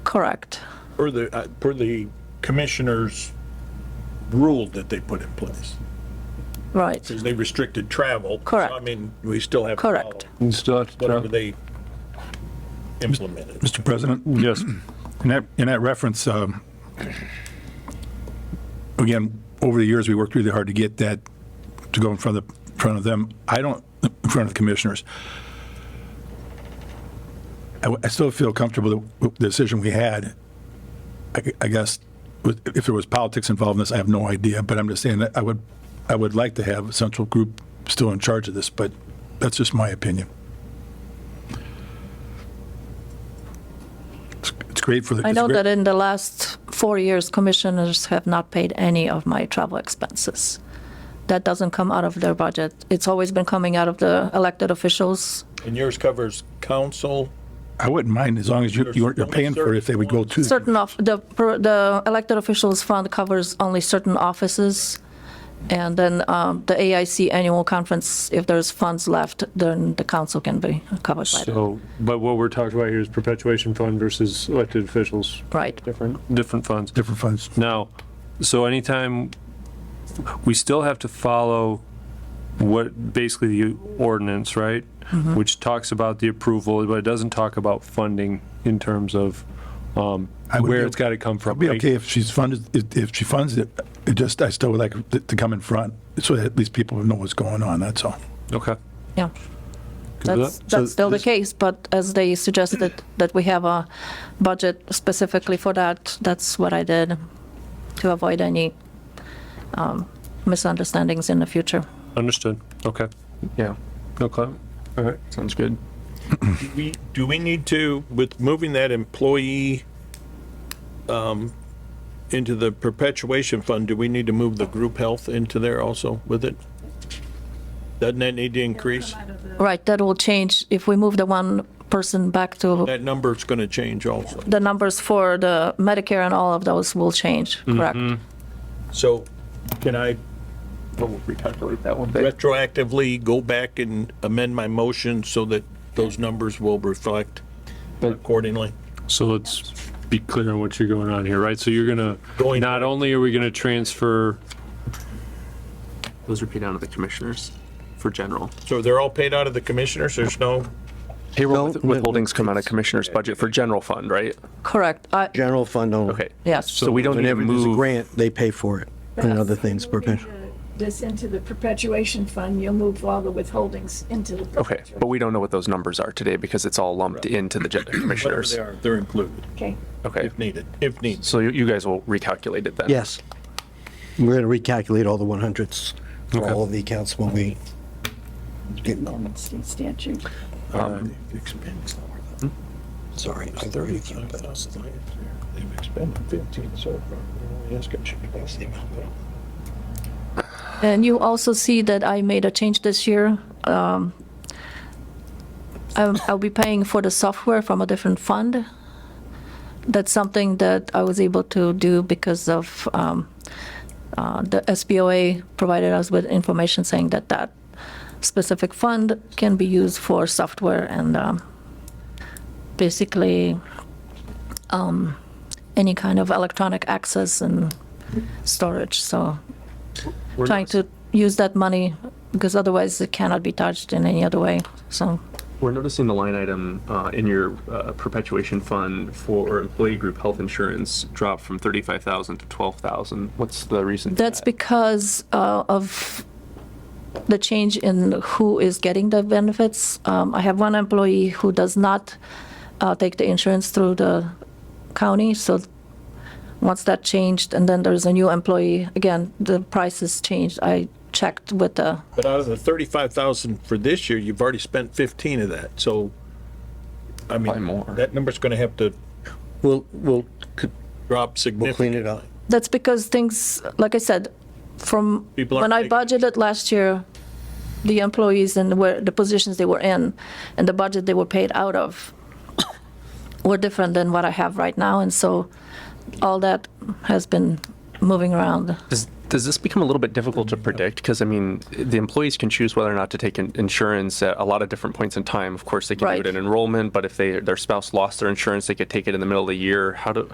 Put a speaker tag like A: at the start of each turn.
A: Correct.
B: per the, uh, per the commissioner's rule that they put in place.
A: Right.
B: Because they restricted travel. So, I
A: Correct.
B: mean, we still have. to
A: Correct.
B: follow
C: And start to
B: Whatever
C: travel.
B: they implemented.
D: Mr. President? Yes. In that, in that reference, um, again, over the years, we worked really hard to get that to go in front of, in front of them. I don't, in front of the commissioners. I, w- I still feel comfortable with the decision we had. I, g- I guess, with- if there was politics involved in this, I have no idea, but I'm just saying that I would, I would like to have a central group still in charge of this, but that's just my opinion. It's it's great for the.
A: I
D: it's
A: know
D: great-
A: that in the last four years, commissioners have not paid any of my travel expenses. That doesn't come out of their budget. It's always been coming out of the elected officials.
D: Mm-hmm.
B: And yours covers council,
D: I wouldn't mind as long as you, you're you're paying for it if they would go to.
A: Certain of, the, per- the elected officials fund covers only certain offices. And then um, the AIC annual conference, if there's funds left, then the council can be covered by that.
C: So, but what we're talking about here is perpetuation fund versus elected officials,
A: Right.
C: different, different funds.
D: Different funds.
C: Now, so anytime, we still have to follow what, basically the ordinance, right? Which talks about the approval, but it doesn't talk about funding in terms of um,
D: I would
C: where
D: be-
C: it's got to come
D: It'd
C: from.
D: be
C: right?
D: okay if she's funded, if, if she funds it, it just, I still would like it to come in front, so that at least people know what's going on, that's all.
C: Okay.
A: Yeah.
C: with
A: That's,
C: that?
A: that's
D: So
A: still the
D: this-
A: case, but as they suggested that we have a budget specifically for that, that's what I did to avoid any um, misunderstandings in the future.
C: Understood. Okay.
E: Yeah,
C: No comment? All right.
E: sounds good.
B: do we, do we need to, with moving that employee um, into the perpetuation fund, do we need to move the group health into there also with it? Doesn't that need to increase?
A: Right, that will change if we move the one person back to,
B: That number's going to change also.
A: the numbers for the Medicare and all of those will change, correct?
D: Mm-hmm.
B: So can I
E: But we'll recalculate that one. But
B: retroactively go back and amend my motion so that those numbers will reflect
E: But-
B: accordingly?
C: So let's be clear on what you're going on here, right? So you're gonna,
B: Going-
C: not only are we gonna transfer,
E: those are paid out of the commissioners for general.
B: So they're all paid out of the commissioners? There's no,
E: Payroll
F: No,
E: with-
F: no,
E: withholdings come out of commissioners budget for general fund, right?
A: Correct, I,
F: General fund only.
E: Okay,
A: yes,
E: so we don't need to
F: Whenever there's a
E: move.
F: grant, they pay for it and other things. perpetu-
G: This into the perpetuation fund, you'll move all the withholdings into the.
E: Okay, but we don't know what those numbers are today because it's all lumped into the gen-
B: whatever
E: commissioners.
B: they are, they're included
G: Okay.
E: Okay,
B: if needed, if needed.
E: so you, you guys will recalculate it then?
F: Yes. We're going to recalculate all the 100s for
C: Okay.
F: all of the accounts when we get,
G: State statute.
B: Um, They've expended
F: sorry, I thought you counted those.
B: They've expended 15 so far. We're only asking, should we pass the amount down?
A: and you also see that I made a change this year. Um, I'm- I'll be paying for the software from a different fund. That's something that I was able to do because of um, uh, the SBOA provided us with information saying that that specific fund can be used for software and um, basically um, any kind of electronic access and storage. So trying to use that money because otherwise it cannot be touched in any other way. So
E: We're noticing the line item uh, in your uh, perpetuation fund for employee group health insurance dropped from 35,000 to 12,000. What's the reason? for
A: that's
E: that?
A: because uh, of the change in who is getting the benefits. Um, I have one employee who does not uh, take the insurance through the county. So once that changed, and then there's a new employee, again, the prices changed. I checked with the
B: But out of the 35,000 for this year, you've already spent 15 of that, so, I
E: Probably
B: mean,
E: more.
B: that number's gonna have to
F: We'll, we'll, c-
B: drop
F: we'll
B: significantly.
F: clean it up.
A: That's because things, like I said, from
B: People aren't
A: when I
B: taking-
A: budgeted last year, the employees and where, the positions they were in and the budget they were paid out of were different than what I have right now. And so all that has been moving around.
E: Does, Does this become a little bit difficult to predict? Because I mean, the employees can choose whether or not to take in- insurance at a lot of different points in time. Of course, they can do
A: Right.
E: it in enrollment, but if they, their spouse lost their insurance, they could take it in the middle of the year. How do,